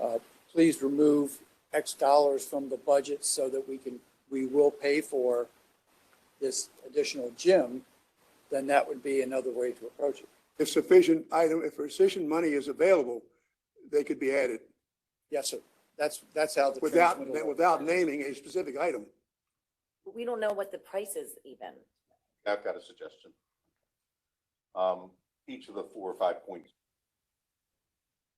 Uh, please remove X dollars from the budget so that we can, we will pay for this additional gym, then that would be another way to approach it. If sufficient item, if sufficient money is available, they could be added Yes, sir. That's, that's how the. without, transmittal works. without naming a specific item. But We don't know what the price is even. I've got a suggestion. Um, each of the four or five points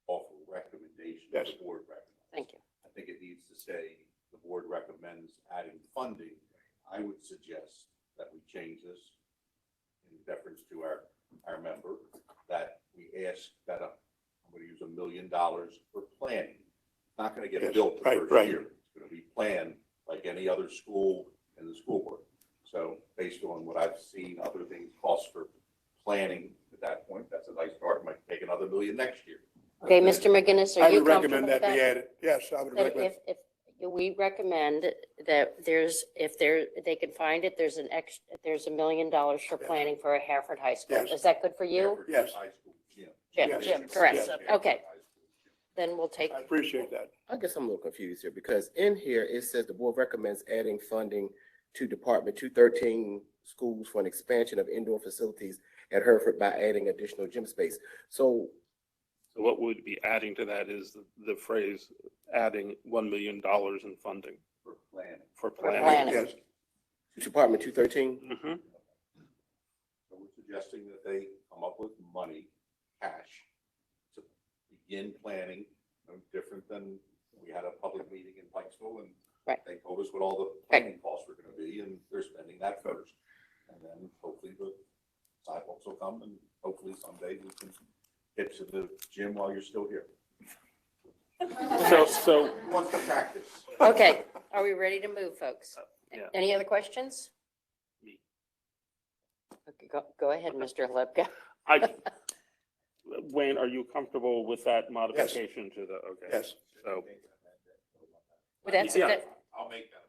offer recommendations. Yes. The board recommends. Thank you. I think it needs to say, the board recommends adding funding. I would suggest that we change this in deference to our, our member, that we ask that, uh, I'm gonna use a million dollars for planning. It's Not gonna Yes, get built the right, first right. year. It's gonna be planned like any other school in the school board. So based on what I've seen, other things cost for planning at that point, that's a nice start. Might take another million next year. Okay, Mr. McGinnis, are I you would recommend comfortable with that be that? added. Yes, I would That recommend. if, if, we recommend that there's, if there, they can find it, there's an ex, there's a million dollars for planning for a Hereford High School. Yes. Is that good for you? Hanford Yes. High School gym. Jim, Yes. Jim, correct, Yes. okay, then we'll take, I appreciate that. I guess I'm a little confused here because in here it says the board recommends adding funding to Department two thirteen schools for an expansion of indoor facilities at Hereford by adding additional gym space. So, So what would be adding to that is the- the phrase, adding $1 million in funding For planning. for planning. planning. Yes, Department two thirteen, Mhm. So we're suggesting that they come up with money, cash, to begin planning, no different than we had a public meeting in Pikesville and Right. they told us what all the planning costs were gonna be and they're spending that first. And then hopefully the sidewalks will come and hopefully someday we can get to the gym while you're still here. So, so Who wants to practice? okay, are we ready to move, folks? yeah. Any other questions? Me. Okay, go, go ahead, Mr. Lepka. I, Wayne, are you comfortable with that modification to the, okay? yes. So, Well, that's- Yeah. that- I'll make that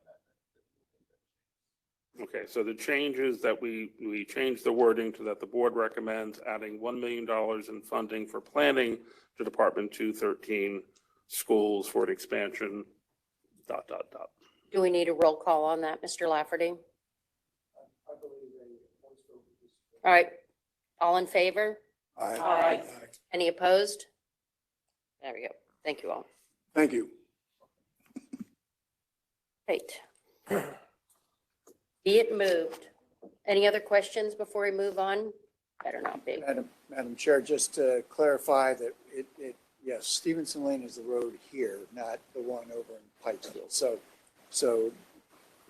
amendment. okay, so the change is that we, we change the wording to that the board recommends adding $1 million in funding for planning to Department 213 schools for an expansion, dot, dot, dot. Do we need a roll call on that, Mr. Lafferty? All right, all in favor? I- Aye. Any opposed? There we go. Thank you all. Thank you. Great. Be it moved. Any other questions before we move on? Better not be. Madam, Madam Chair, just to clarify that it, it, yes, Stevenson Lane is the road here, not the one over in Pikesville. So, so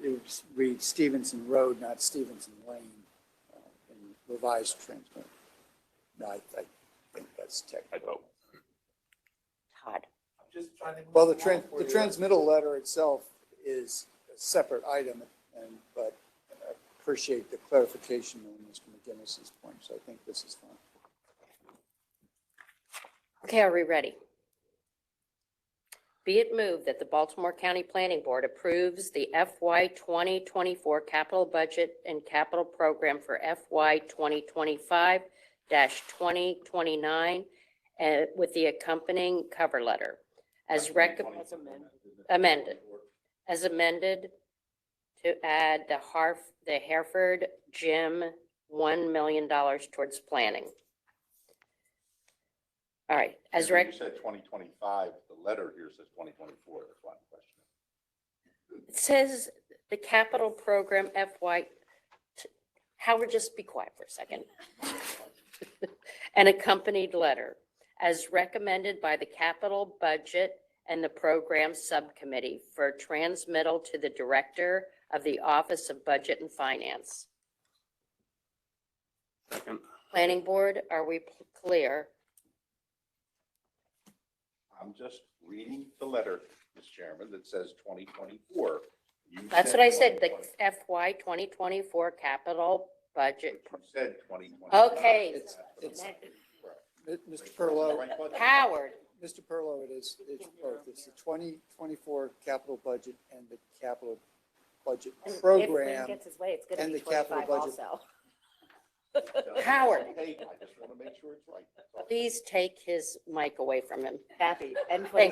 it would read Stevenson Road, not Stevenson Lane, uh, in revised transmit. No, I, I think that's I technical. vote. Todd. I'm just trying to. Well, the tran, the transmittal letter itself is a separate item, and, but I appreciate the clarification on Mr. McGinnis's point, so I think this is fine. Okay, are we ready? Be it moved that the Baltimore County Planning Board approves the FY 2024 capital budget and capital program for FY 2025-2029 uh, with the accompanying cover letter as rec, amended, as amended to add the Harf, the Hereford Gym $1 million towards planning. All right, as rec. You said twenty twenty-five, the letter here says twenty twenty-four, that's why I'm questioning. It says the capital program FY, Howard, just be quiet for a second. An accompanied letter as recommended by the capital budget and the program subcommittee for transmittal to the director of the Office of Budget and Finance. Second. Planning board, are we p- clear? I'm just reading the letter, Mr. Chairman, that says twenty twenty-four. That's what I said, the FY 2024 capital budget. You said twenty twenty. Okay. It's, it's, Mr. Perlow, Howard, Mr. Perlow, it is, it's both, it's the twenty twenty-four capital budget and the capital budget And if Wayne program. Gets his way, it's gonna and be the capital twenty-five budget. also. Howard. I just want to make sure it's right. That's all. please take his mic away from him. Kathy, and Thank